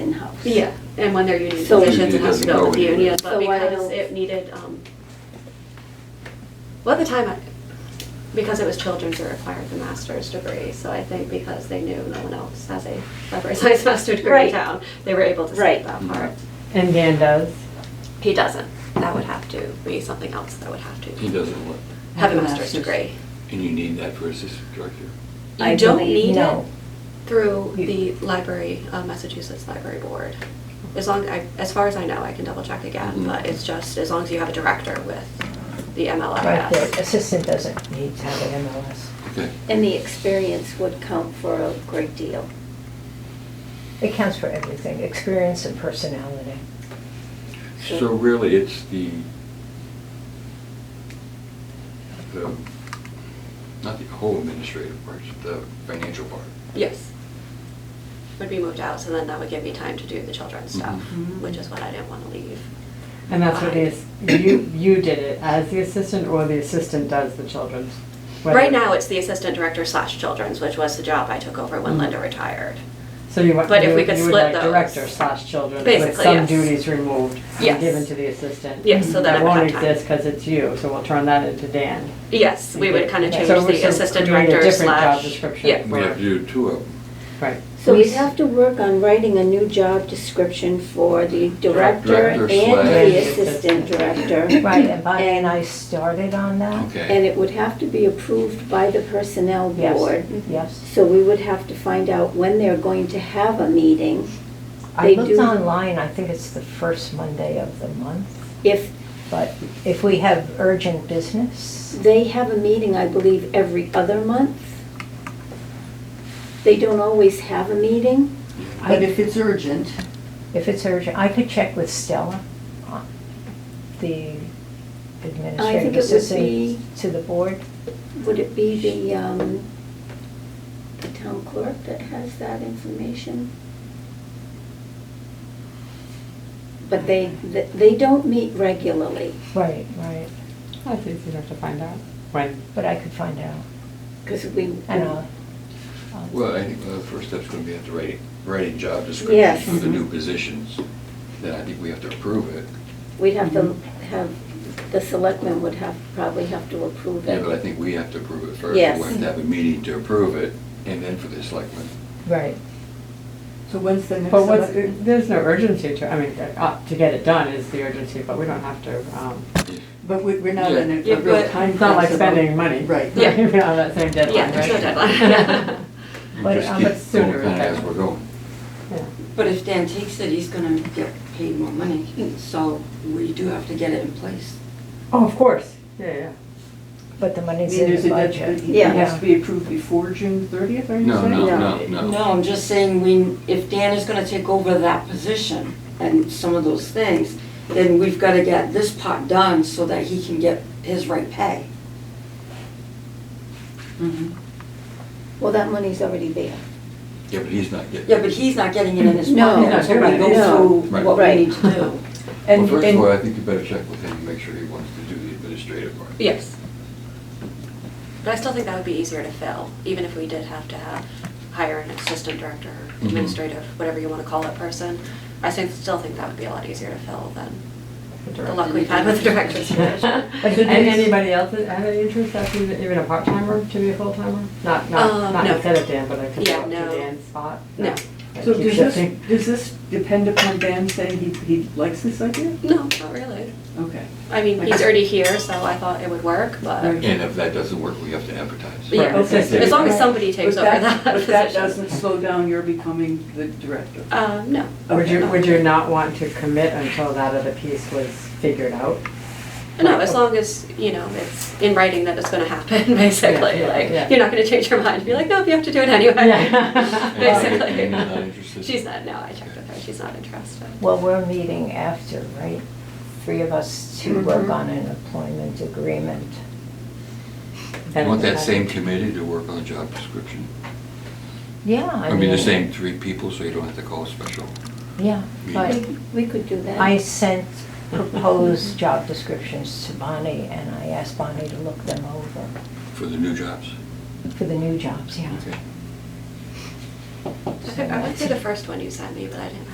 Yeah, and when they're union So- positions, it has to go with the Doesn't go union, but So why because don't- it needed, um, well, at the time, I- because it was children's, it required the master's degree, so I think because they knew no one else has a library science master degree Right. in town, they were able to skip Right. that part. And Dan does. He doesn't, that would have to be something else that would have He to doesn't what? have a master's degree. And you need that for assistant director? You I don't believe- need it no. through the library, uh, Massachusetts Library Board. As long, I- as far as I know, I can double check again, Mhm. but it's just as long as you have a director with the Right, the MLRS. assistant doesn't need to have an MLS. Okay. And the experience would count for a great deal. It counts for everything, experience and personality. So really, it's the, the, not the whole administrative part, it's the financial part. Yes. Would be moved out, so then that would give me time to do the children's stuff, Mhm. which is what I didn't want to leave. And that's what it is, behind. you, you did it as the assistant or the assistant does the children's? Whether- Right now, it's the assistant director slash children's, which was the job I took over when Mhm. Linda retired. So you want, but if you we could would- you would split like those. director slash children with Basically, some yes. duties removed Yes. and given to the assistant? Yes, so that I would have time. won't exist because it's you, so we'll turn that into Dan. Yes, we would kind of So change we the should assistant create a director different job slash. description. Yeah, We have to do two of them. Right. So we'd have to work on writing a new job description for the director Director and slash- the assistant director. Right, and Bonnie and I started on that. And Okay. it would have to be approved by the personnel Yes. Mm-hmm. board. Yes. So we would have to find out when they're going to have a meeting. I They looked do- online, I think it's the first Monday of the month, If but if we have urgent business, they have a meeting, I believe, every other month. They don't always have a meeting. But if it's urgent. if it's urgent, I could check with Stella, uh, the administrative it would be- assistant to the board. Would it be the, um, the town clerk that has that information? But they, th- they don't meet regularly, Right, right, I think you'd have to find out. When? but I could find out, because we. and I'll. I'll- Well, I think the first step's gonna be at the writing, writing job Yes. Mm-hmm. descriptions for the new positions. Then I think we have to approve it. We'd have to have, the selectmen would have, probably have to approve Yeah, but I it. think we have to approve it first. Yes. We have to have a meeting to approve it, and then for the selectmen. Right. So when's the next But what's, election? there's no urgency to, I mean, uh, to get it done is the urgency, but we don't have to, um, But we- we're not in a Yeah, a real but time. It's not like crunch spending about- money. Right. Yeah. We're on that same deadline, yeah, right? there's no deadline. We But, um, but just keep sooner going kind of as is better. we're going. Yeah. But if Dan takes it, he's gonna get paid more money, so we do have to get it in place. Oh, of course, yeah, yeah. But the I money's mean, in there's the a deadline, budget. it Yeah. has to be approved before June thirtieth, are you No, saying? no, No. no, no. No, I'm just saying, we, if Dan is gonna take over that position and some of those things, then we've gotta get this part done so that he can get his right pay. Well, that money's already there. Yeah, but he's not getting. Yeah, but he's not getting it in his No. pocket until we go through Right. what we Right. need to do. Well, And- first and- of all, I think you better check with him, and make sure he wants to do the administrative part. Yes. But I still think that would be easier to fill, even if we did have to have, hire an assistant director, Mhm. administrative, whatever you want to call that person. I still- still think that would be a lot easier to fill than the luck we've had with the director's position. And anybody else that had an interest, that's even even a part-timer to be a full-timer? Not, Um, not, not no. instead of Dan, but I could Yeah, go up to no. Dan's spot? No. That So keeps does this, shifting. does this depend upon Dan saying he, he likes this idea? No, not really. Okay. I mean, he's already here, so I thought it would work, but Right. And if that doesn't work, we have to advertise. Yeah, Right. Okay. as long as somebody takes But over that But that position. doesn't slow down your becoming the director. um, no. Would you, Okay. would you not want to commit until that other piece was figured out? No, as long as, you know, it's in writing that it's going to happen, basically. yeah, Like, yeah. you're not going to change your mind and be like, nope, you have to do it anyway. Yeah. And Basically. Anna's not interested? She's not, no, I checked with her, she's not interested. Well, we're meeting after, right? Three of us to work Mhm. on an employment agreement. You Want that same committee to work on the job description? Yeah, I mean, the same three people, so you don't have to call a special. Yeah, but We- We could do that. I sent proposed job descriptions to Bonnie, and I asked Bonnie to look them over For the new jobs? for the new jobs, yeah. Okay. I think I went through the first one you sent me, but I didn't